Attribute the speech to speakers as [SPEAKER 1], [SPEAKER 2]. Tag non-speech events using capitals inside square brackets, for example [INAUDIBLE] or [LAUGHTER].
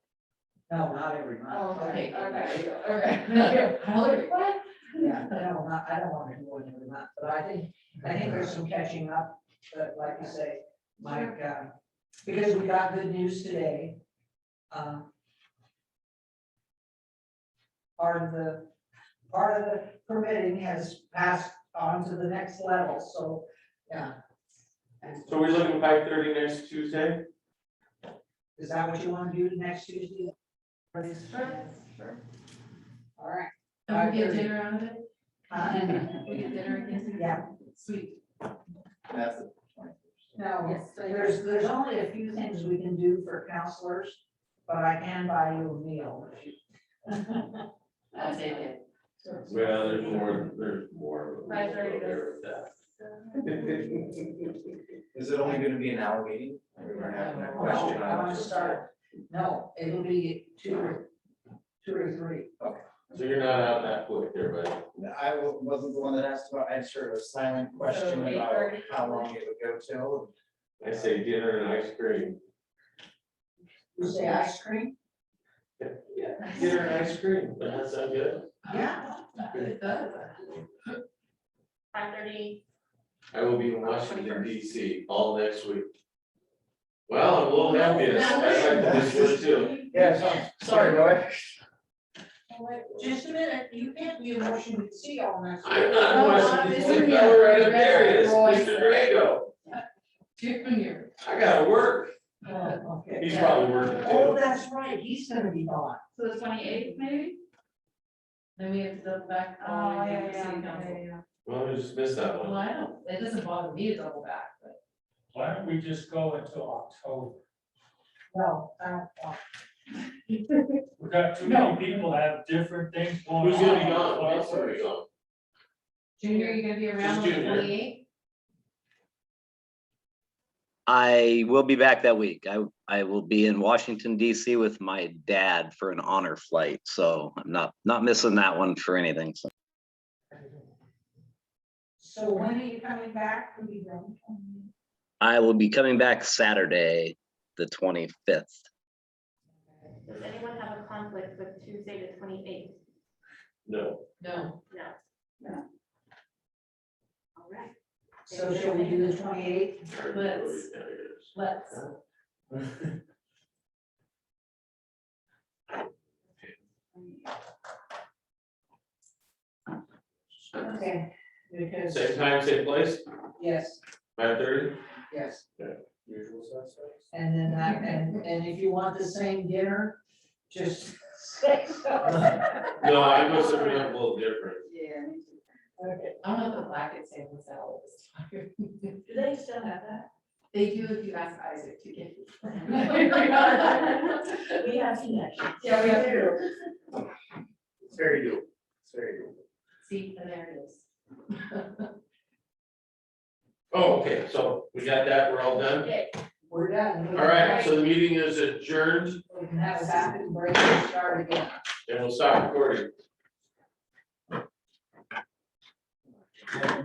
[SPEAKER 1] No, not every month.
[SPEAKER 2] Oh, okay,
[SPEAKER 1] Sorry.
[SPEAKER 2] okay, [LAUGHS] okay. I was like, what?
[SPEAKER 1] Yeah, no, not, I don't wanna do one every month, but I think, I think there's some catching up, but like you say, Mike, uh, because we got good news today. um, Part of the, part of the permitting has passed on to the next level, so, yeah. And
[SPEAKER 3] So we're looking five thirty next Tuesday?
[SPEAKER 1] Is that what you wanna do next Tuesday? Or this- All right.
[SPEAKER 2] Don't we get dinner out of it?
[SPEAKER 1] Uh,
[SPEAKER 2] [LAUGHS] We get dinner again?
[SPEAKER 1] Yeah.
[SPEAKER 2] Sweet.
[SPEAKER 4] That's the twenty-first.
[SPEAKER 1] No,
[SPEAKER 2] Yes, so you're-
[SPEAKER 1] there's, there's only a few things we can do for counselors, but I can buy you a meal. if you-
[SPEAKER 2] I'll take it.
[SPEAKER 3] Well, there's more, there's more. but we'll
[SPEAKER 5] Five thirty
[SPEAKER 3] go there with that.
[SPEAKER 4] [LAUGHS] Is it only gonna be an hour meeting? We were
[SPEAKER 1] [LAUGHS]
[SPEAKER 4] having a
[SPEAKER 1] No,
[SPEAKER 4] question
[SPEAKER 1] I
[SPEAKER 4] on.
[SPEAKER 1] wanna start, no, it'll be two or, two or three.
[SPEAKER 3] So you're not out that quick there, but
[SPEAKER 4] I wa- wasn't the one that asked about, I had sort of a silent question
[SPEAKER 5] So,
[SPEAKER 4] about
[SPEAKER 5] 8:30?
[SPEAKER 4] how long it would go till.
[SPEAKER 3] I say dinner and ice cream.
[SPEAKER 1] You say ice cream?
[SPEAKER 3] Yeah. Dinner and ice cream, but that sound good?
[SPEAKER 1] Yeah.
[SPEAKER 2] It does.
[SPEAKER 5] Five thirty,
[SPEAKER 3] I will be in Washington DC all next week. Well, I'm a little happy, I like this one too.
[SPEAKER 4] Yeah, so- sorry, Roy.
[SPEAKER 1] Just a minute, you can't be in Washington see all next week.
[SPEAKER 3] I'm not in
[SPEAKER 2] Oh,
[SPEAKER 3] Washington
[SPEAKER 2] obviously,
[SPEAKER 3] DC, I'm right up
[SPEAKER 2] you're
[SPEAKER 3] there, it is,
[SPEAKER 2] right,
[SPEAKER 3] Mr. Drago,
[SPEAKER 2] Good when you're.
[SPEAKER 3] I gotta work,
[SPEAKER 1] Oh, okay.
[SPEAKER 3] he's probably working
[SPEAKER 1] Oh,
[SPEAKER 3] too.
[SPEAKER 1] that's right, he's gonna be gone.
[SPEAKER 2] So the twenty eighth maybe? Oh, Then we have to double back all the way down to city council.
[SPEAKER 3] Well, I just missed that
[SPEAKER 2] Well,
[SPEAKER 3] one.
[SPEAKER 2] I don't, it doesn't bother me to double back, but
[SPEAKER 6] Why don't we just go until October?
[SPEAKER 1] No, I don't want.
[SPEAKER 6] We got too
[SPEAKER 2] No.
[SPEAKER 6] many people have different things going on.
[SPEAKER 3] Who's gonna be gone, who else gonna be gone?
[SPEAKER 2] Junior, you gonna be around on
[SPEAKER 3] Just
[SPEAKER 2] the
[SPEAKER 3] Junior.
[SPEAKER 2] twenty eighth?
[SPEAKER 7] I will be back that week. I, I will be in Washington DC with my dad for an honor flight. So I'm not, not missing that one for anything. So
[SPEAKER 1] So when are you coming back? Will you go?
[SPEAKER 7] I will be coming back Saturday, the 25th.
[SPEAKER 5] does anyone have a conflict with Tuesday the twenty-eighth?
[SPEAKER 3] No,
[SPEAKER 2] No,
[SPEAKER 5] No.
[SPEAKER 1] No.
[SPEAKER 5] All right,
[SPEAKER 1] So shall we do the twenty-eighth?
[SPEAKER 2] Let's- let's.
[SPEAKER 1] Okay, because,
[SPEAKER 3] Same time, same place,
[SPEAKER 1] yes,
[SPEAKER 3] five thirty?
[SPEAKER 1] yes,
[SPEAKER 3] Usual suspects.
[SPEAKER 1] and then that, and, and if you want the same dinner, just [LAUGHS] say so.
[SPEAKER 3] No, I know something up a little different.
[SPEAKER 2] Yeah. I don't know if the black is saving salad this time.
[SPEAKER 5] Do they still have that?
[SPEAKER 2] They do if you ask Isaac to [LAUGHS] get.
[SPEAKER 5] We have connections.
[SPEAKER 2] Yeah, we have to,
[SPEAKER 4] It's very doable. It's very doable.
[SPEAKER 2] see, and there it is.
[SPEAKER 3] Oh, okay, so we got that, we're all done.
[SPEAKER 5] Okay.
[SPEAKER 1] We're done.
[SPEAKER 3] All right, so the meeting is adjourned
[SPEAKER 1] We can have a bathroom break and start again.
[SPEAKER 3] and we'll stop recording.